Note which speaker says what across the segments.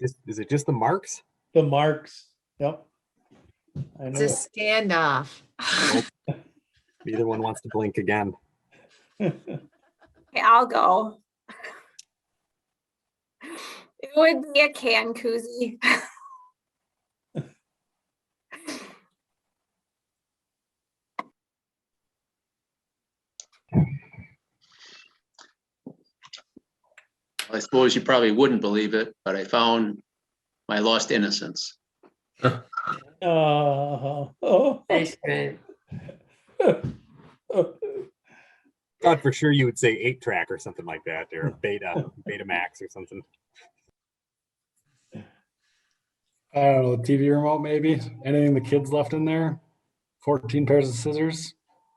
Speaker 1: Is, is it just the marks?
Speaker 2: The marks, yep. I
Speaker 3: It's
Speaker 2: know.
Speaker 3: a
Speaker 2: it.
Speaker 3: standoff.
Speaker 1: Neither one wants to blink again.
Speaker 4: Okay, I'll go. It would be a can koozie.
Speaker 5: I suppose you probably wouldn't believe it, but I found my lost innocence.
Speaker 2: Uh, oh.
Speaker 6: That's right.
Speaker 1: Thought for sure you would say eight track or something like that, or Beta, Beta Max or something.
Speaker 7: I don't know, TV remote maybe, anything the kids left in there, fourteen pairs of scissors,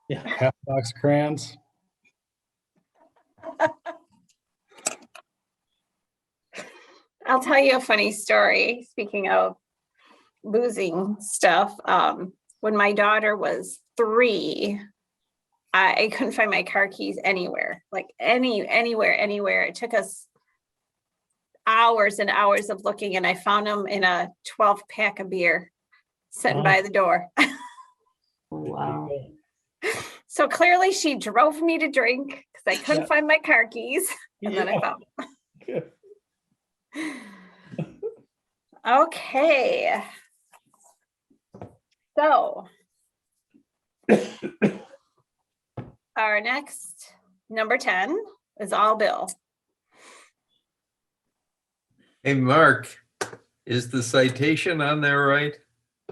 Speaker 2: Yeah,
Speaker 7: half box of crayons.
Speaker 4: I'll tell you a funny story, speaking of losing stuff. Um, when my daughter was three, I, I couldn't find my car keys anywhere, like any, anywhere, anywhere. It took us hours and hours of looking and I found them in a twelve pack of beer sitting
Speaker 2: Wow.
Speaker 4: by the door.
Speaker 6: Oh, Wow.
Speaker 4: So clearly she drove me to drink because I
Speaker 2: Yeah.
Speaker 4: couldn't find my car keys and then I
Speaker 2: Yeah.
Speaker 4: found. 'em. Okay. So. Our next, number ten is all Bill.
Speaker 8: Hey, Mark, is the citation on there right?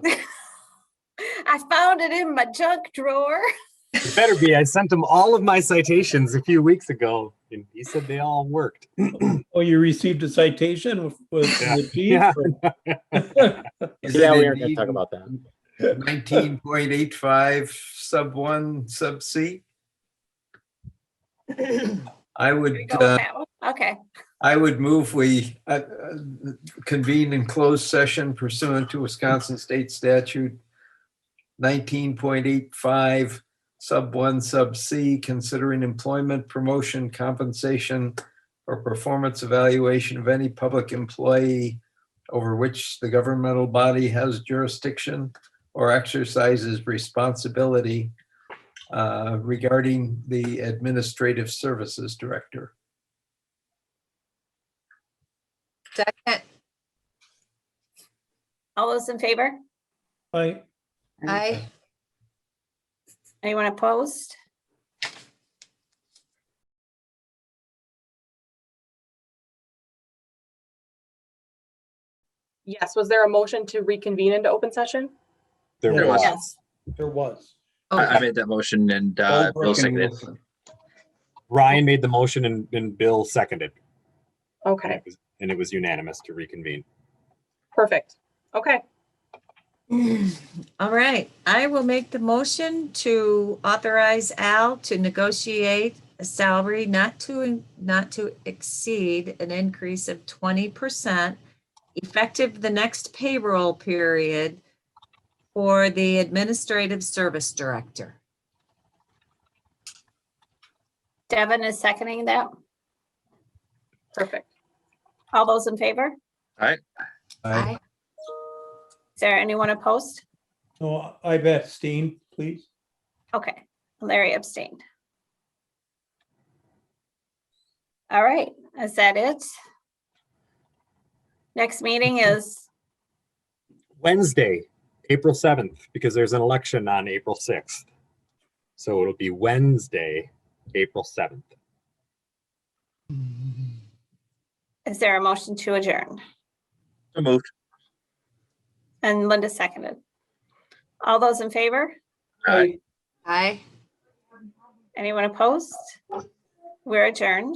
Speaker 4: I found it in my junk drawer.
Speaker 1: It better be. I sent him all of my citations a few weeks ago, and he said they all worked.
Speaker 2: oh, you received a citation with, with
Speaker 1: Yeah.
Speaker 2: the
Speaker 1: Yeah.
Speaker 2: chief?
Speaker 9: Yeah, we are gonna talk about that.
Speaker 8: Nineteen point eight five, sub one, sub C? I
Speaker 4: There you
Speaker 8: would,
Speaker 4: go with
Speaker 8: uh,
Speaker 4: that one. Okay,
Speaker 8: I would move we uh, uh, convene in closed session pursuant to Wisconsin State Statute nineteen point eight five, sub one, sub C, considering employment, promotion, compensation, or performance evaluation of any public employee over which the governmental body has jurisdiction or exercises responsibility uh, regarding the Administrative Services Director.
Speaker 3: Second,
Speaker 4: all those in favor?
Speaker 2: I,
Speaker 3: I,
Speaker 4: Anyone opposed?
Speaker 10: Yes, was there a motion to reconvene into open session?
Speaker 1: There
Speaker 2: Yeah.
Speaker 1: was.
Speaker 4: Yes.
Speaker 2: there was.
Speaker 3: oh.
Speaker 9: I I made that motion and uh,
Speaker 8: Goldberg
Speaker 9: Bill
Speaker 8: and
Speaker 9: seconded.
Speaker 8: Wilson.
Speaker 1: Ryan made the motion and, and Bill seconded. And
Speaker 10: Okay,
Speaker 1: it was- and it was unanimous to reconvene.
Speaker 10: perfect. Okay,
Speaker 3: all right, I will make the motion to authorize Al to negotiate a salary not to, not to exceed an increase of twenty percent effective the next payroll period for the Administrative Service Director.
Speaker 4: Devin is seconding that.
Speaker 10: perfect.
Speaker 4: All those in favor?
Speaker 8: Aye.
Speaker 4: Is there anyone opposed?
Speaker 2: No, I bet Steen, please.
Speaker 4: Okay, Larry abstained. All right, is that it? Next meeting is,
Speaker 1: Wednesday, April 7th, because there's an election on April 6th. So it'll be Wednesday, April 7th.
Speaker 4: is there a motion to adjourn?
Speaker 9: So Moved.
Speaker 4: And Linda seconded. All those in favor?
Speaker 9: Aye.
Speaker 3: Aye.
Speaker 4: Anyone opposed? We're adjourned.